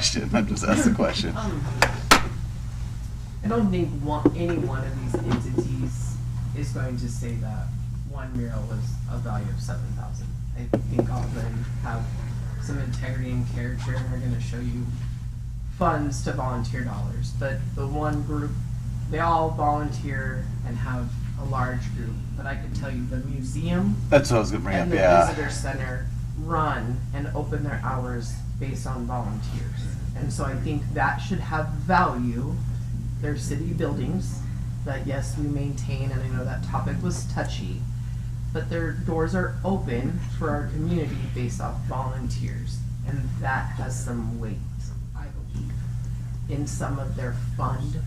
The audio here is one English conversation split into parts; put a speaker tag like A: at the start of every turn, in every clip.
A: question. I just asked the question.
B: Um, I don't think one, any one of these entities is going to say that one mural was a value of seven thousand. I think all of them have some integrity and character and are gonna show you funds to volunteer dollars. But the one group, they all volunteer and have a large group, but I can tell you the museum
A: That's what I was gonna bring
B: and
A: up.
B: the
A: Yeah.
B: visitor center run and open their hours based on volunteers. And so I think that should have value. They're city buildings that, yes, we maintain, and I know that topic was touchy, but their doors are open for our community based off volunteers. And that has some weight, I believe, in some of their fund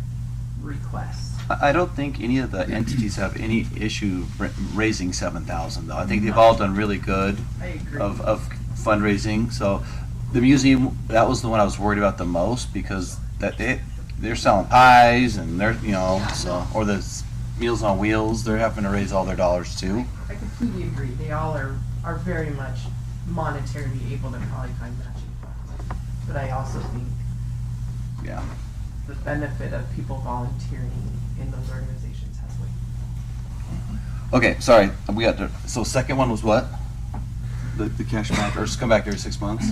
B: requests.
A: I I don't think any of the entities have any issue ra- raising seven thousand though. I think they've all done really good
B: I agree.
A: of, of fundraising. So the museum, that was the one I was worried about the most because that they, they're selling pies and they're, you know, so, or the s- Meals on Wheels, they're having to raise all their dollars too.
B: I completely agree. They all are, are very much monetarily able to probably find matching funds. But I also think
A: Yeah.
B: the benefit of people volunteering in those organizations has weight.
A: Okay, sorry, we got, to- so second one was what? The, the cash match, or just come back every six months?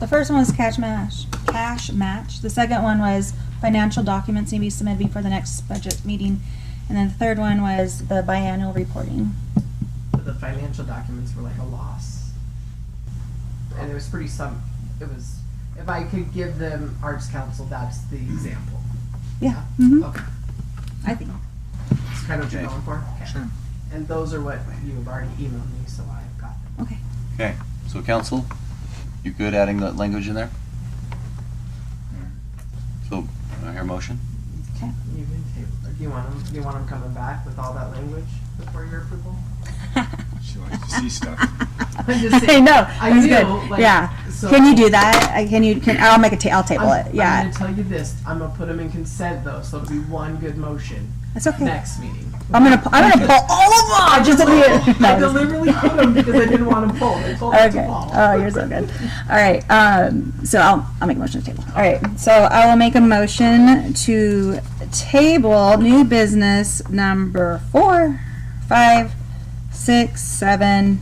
C: The first one was cash match, cash match. The second one was financial documents need to be submitted before the next budget meeting. And then the third one was the biannual reporting.
B: But the financial documents were like a loss. And it was pretty some, it was, if I could give them Arts Council, that's the example.
C: Yeah, mhm,
B: Okay,
C: I think.
B: it's kind of what you're
A: Okay.
B: going for? Okay.
A: Sure.
B: And those are what you've already emailed me, so I've got them.
C: Okay.
A: Okay, so council, you good adding that language in there? So, I hear a motion?
C: Okay.
B: You can table, do you want them, do you want them coming back with all that language before your approval?
D: She likes to see stuff.
B: I'm just
C: I
B: saying,
C: know.
B: I
C: That's
B: know,
C: good.
B: like,
C: yeah.
B: so-
C: can you do that? I, can you? Can I'll make a ta- I'll table
B: I'm-
C: it. Yeah.
B: I'm gonna tell you this, I'm gonna put them in consent though, so it'll be one good motion,
C: That's okay.
B: next meeting.
C: I'm gonna. pu- I'm gonna pull all of them. Just to be-
B: I
C: No,
B: deliberately put them because I didn't want them full, I told them
C: Okay.
B: to fall.
C: Oh, you're so good. All right. Um, so I'll, I'll make a motion to table. All right. So I will make a motion to table new business number four, five, six, seven,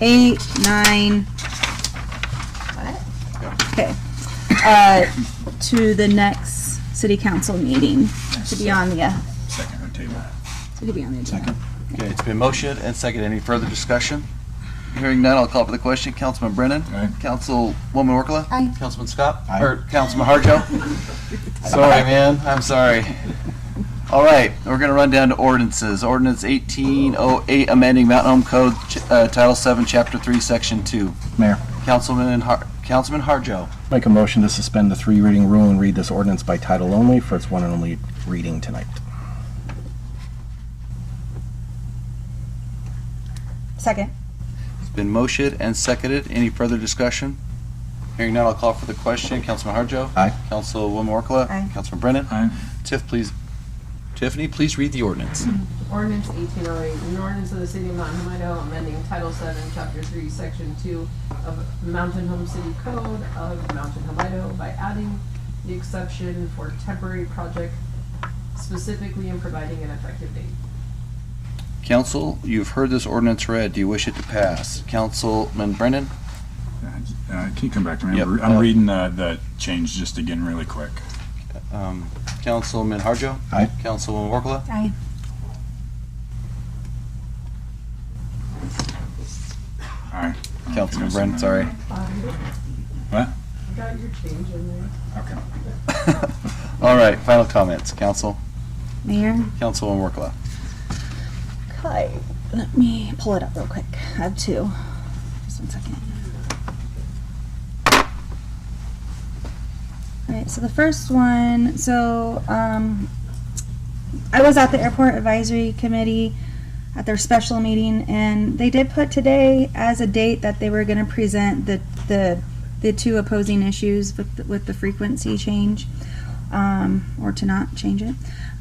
C: eight, nine. Okay. Uh, to the next city council meeting to be on the uh,
D: Second on table. Uh,
C: to be on the agenda.
A: Okay, it's been motioned and seconded. Any further discussion? Hearing none, I'll call for the question. Councilman Brennan?
D: Aye.
A: Councilwoman Orkola?
C: Aye.
A: Councilman Scott?
D: Aye.
A: Or Councilman Harjo? Sorry, man, I'm sorry. All right, we're gonna run down to ordinances. Ordinance eighteen oh eight, amending Mountain Home Code, ch- uh, Title Seven, Chapter Three, Section Two.
E: Mayor,
A: Councilman Har- Councilman Harjo.
E: make a motion to suspend the three reading rule and read this ordinance by title only for its one and only reading tonight.
C: Second.
A: It's been motioned and seconded. Any further discussion? Hearing none, I'll call for the question. Councilman Harjo?
E: Aye.
A: Councilwoman Orkola?
C: Aye.
A: Councilman Brennan?
D: Aye.
A: Tiff, please, Tiffany, please read the ordinance.
B: Ordinance eighteen oh eight, an ordinance of the city of Mountain Home, Idaho, amending Title Seven, Chapter Three, Section Two of Mountain Home City Code of Mountain Home, Idaho by adding the exception for temporary project specifically and providing an effective date.
A: Council, you've heard this ordinance read. Do you wish it to pass? Councilman Brennan?
D: Uh, Can you come back to me?
A: Yep.
D: I'm re-
A: Uh,
D: I'm reading uh, the change just again really quick.
A: Um, Councilman Harjo?
E: Aye.
A: Councilwoman Workla?
C: Aye.
D: Aye. I don't
A: Councilman
D: think
A: Brennan,
D: I said
A: sorry.
D: that. What?
B: Got your change in there.
D: Okay.
A: All right, final comments. Council,
C: Mayor.
A: Councilwoman Workla.
C: Okay, let me pull it up real quick. I have two. Just one second. All right, so the first one, so um, I was at the airport advisory committee at their special meeting, and they did put today as a date that they were going to present the the the two opposing issues with the, with the frequency change, um, or to not change it.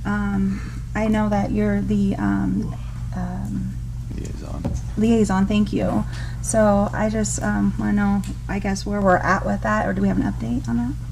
C: Um, I know that you're the um, um,
A: Liaison.
C: liaison, thank you. So I just um, want to know, I guess, where we're at with that, or do we have an update on that?